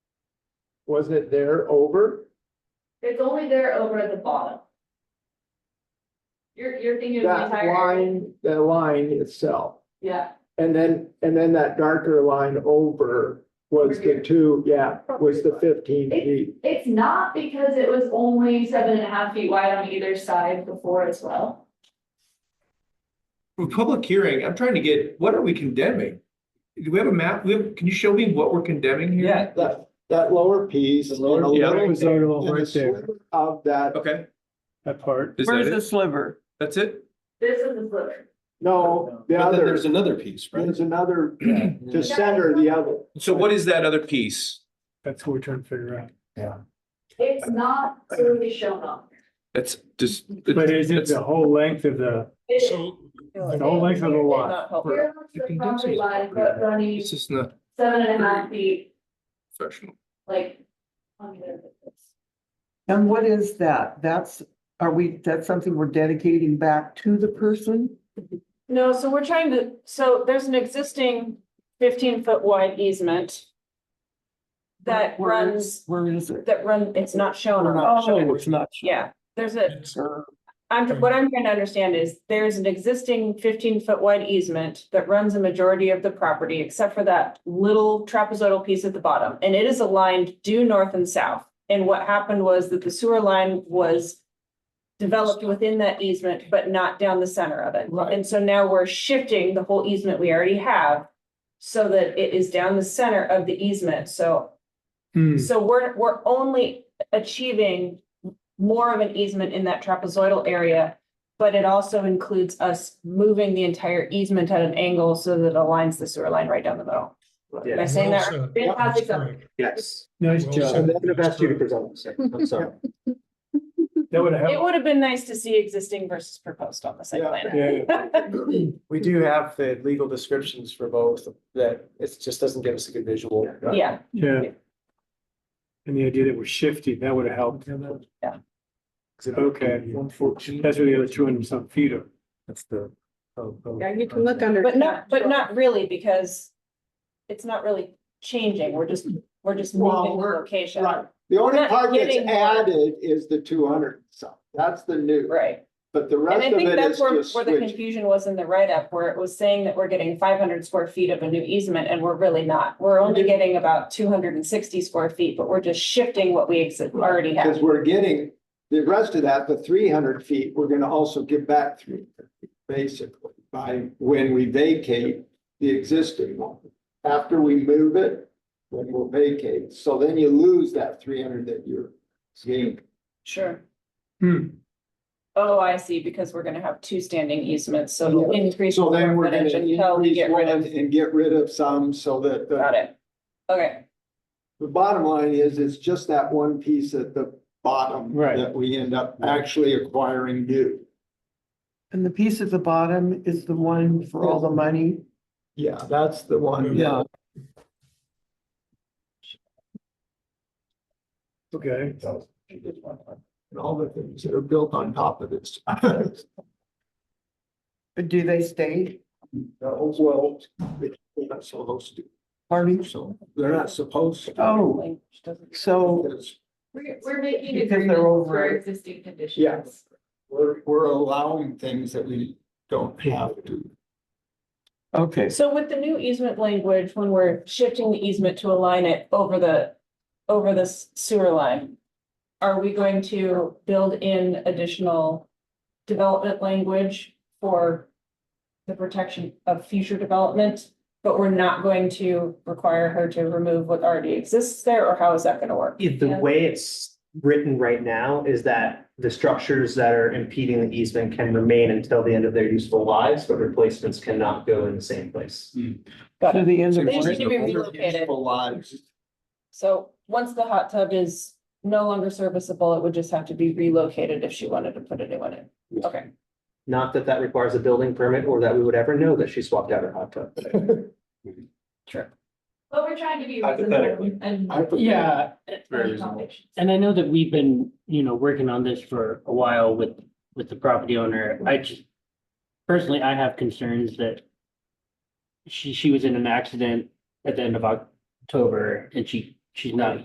Was it there over? It's only there over at the bottom. You're, you're thinking of the That entire. area. line, that line itself. Yeah, And then, and then that darker line over was Over here. the two, yeah, was the fifteen It- feet. it's not because it was only seven and a half feet wide on either side before as well. For public hearing, I'm trying to get, what are we condemning? Do we have a map? We have, can you show me what we're condemning here? Yeah, That, that lower piece. The lower- and a Yeah. little- That was our and little the right there, sliver Of that, Okay, that part. is Where's that the it? sliver? That's it? This is the sliver. no, the But then other, there's another piece, right? there's another, to Just center the other. So what is that other piece? That's what we're trying to figure out. It's not clearly shown on. there. That's just. But is it that's- the whole length of the, It- the whole length of the lot? Here looks the property line, but running It's just not seven and a half feet, professional. like. on the other side. And what is that? That's, are we, that's something we're dedicating back to the person? No, so we're trying to, so there's an existing fifteen foot wide easement. That Where- where runs, Where is Oh. it? that run, it's not shown We're on. not our- sure. It's not. sure. Yeah, there's a, Or- I'm, what I'm trying to understand is there's an existing fifteen foot wide easement that runs a majority of the property except for that little trapezoidal piece at the bottom. And it is aligned due north and south. And what happened was that the sewer line was developed within that easement, but not down the center of it. Right. And so now we're shifting the whole easement we already have so that it is down the center of the easement. So Hmm, so we're, we're only achieving more of an easement in that trapezoidal area. But it also includes us moving the entire easement at an angle so that it aligns the sewer line right down the middle. Am I saying that? right? Fantastic. Yes. nice So I'm job. gonna ask you to present. I'm sorry. That would It help. would have been nice to see existing versus proposed on the site Yeah. plan. Yeah, We do have the legal descriptions for both that it just doesn't give us a good visual. Yeah, yeah. And the idea that we're shifting, that would have helped. Yeah. Okay, that's where the other two hundred some feet are. oh, That's the. Yeah, you can look under. but not, but not really because it's not really changing. We're just, we're just Well, moving the we're- location. Right, the only We're not part that's getting more. added is the two hundred, so that's the new, Right. but the And rest I of think it is that's where, just where the switching. confusion was in the write-up, where it was saying that we're getting five hundred square feet of a new easement, and we're really not. We're only getting about two hundred and sixty square feet, but we're just shifting what we exi- already Cause have. we're getting, the rest of that, the three hundred feet, we're gonna also give back three, basically, by when we vacate the existing one. After we move it, then we'll vacate, so then you lose that three hundred that you're seeing. Sure. Hmm, Oh, I see, because we're gonna have two standing easements, so we'll increase. So then square we're gonna footage until we increase get rid one of. and get rid of some, so that the Got it. Okay, The bottom line is, it's just that one piece at the bottom. Right. That we end up actually acquiring new. And the piece at the bottom is the one for all the money? Yeah, that's the one. Yeah. okay. And all the things that are built on top of this. Do they stay? Well, they're not supposed to, Pardon? so they're not supposed to. Oh, like, she doesn't- so Because We're, we're making Because they're agreements over for it. existing conditions. Yeah. We're, we're allowing things that we don't have to. okay. So with the new easement language, when we're shifting the easement to align it over the, over the s- sewer line, are we going to build in additional development language for the protection of future development? But we're not going to require her to remove what already exists there, or how is that gonna work? If the Yeah. way it's written right now is that the structures that are impeding the easement can remain until the end of their useful lives, but replacements cannot go in the same place. To the end of. They need to be relocated. Useful lives. So once the hot tub is no longer serviceable, it would just have to be relocated if she wanted to put a new one in. Okay. Not that that requires a building permit or that we would ever know that she swapped out her hot tub. But we're trying to be reasonable Hypothetically. and. I put- Yeah, Very accommodations. and I know that we've been, you know, working on this for a while with, with the property owner. I just, personally, I have concerns that she, she was in an accident at the end of October and she, she's not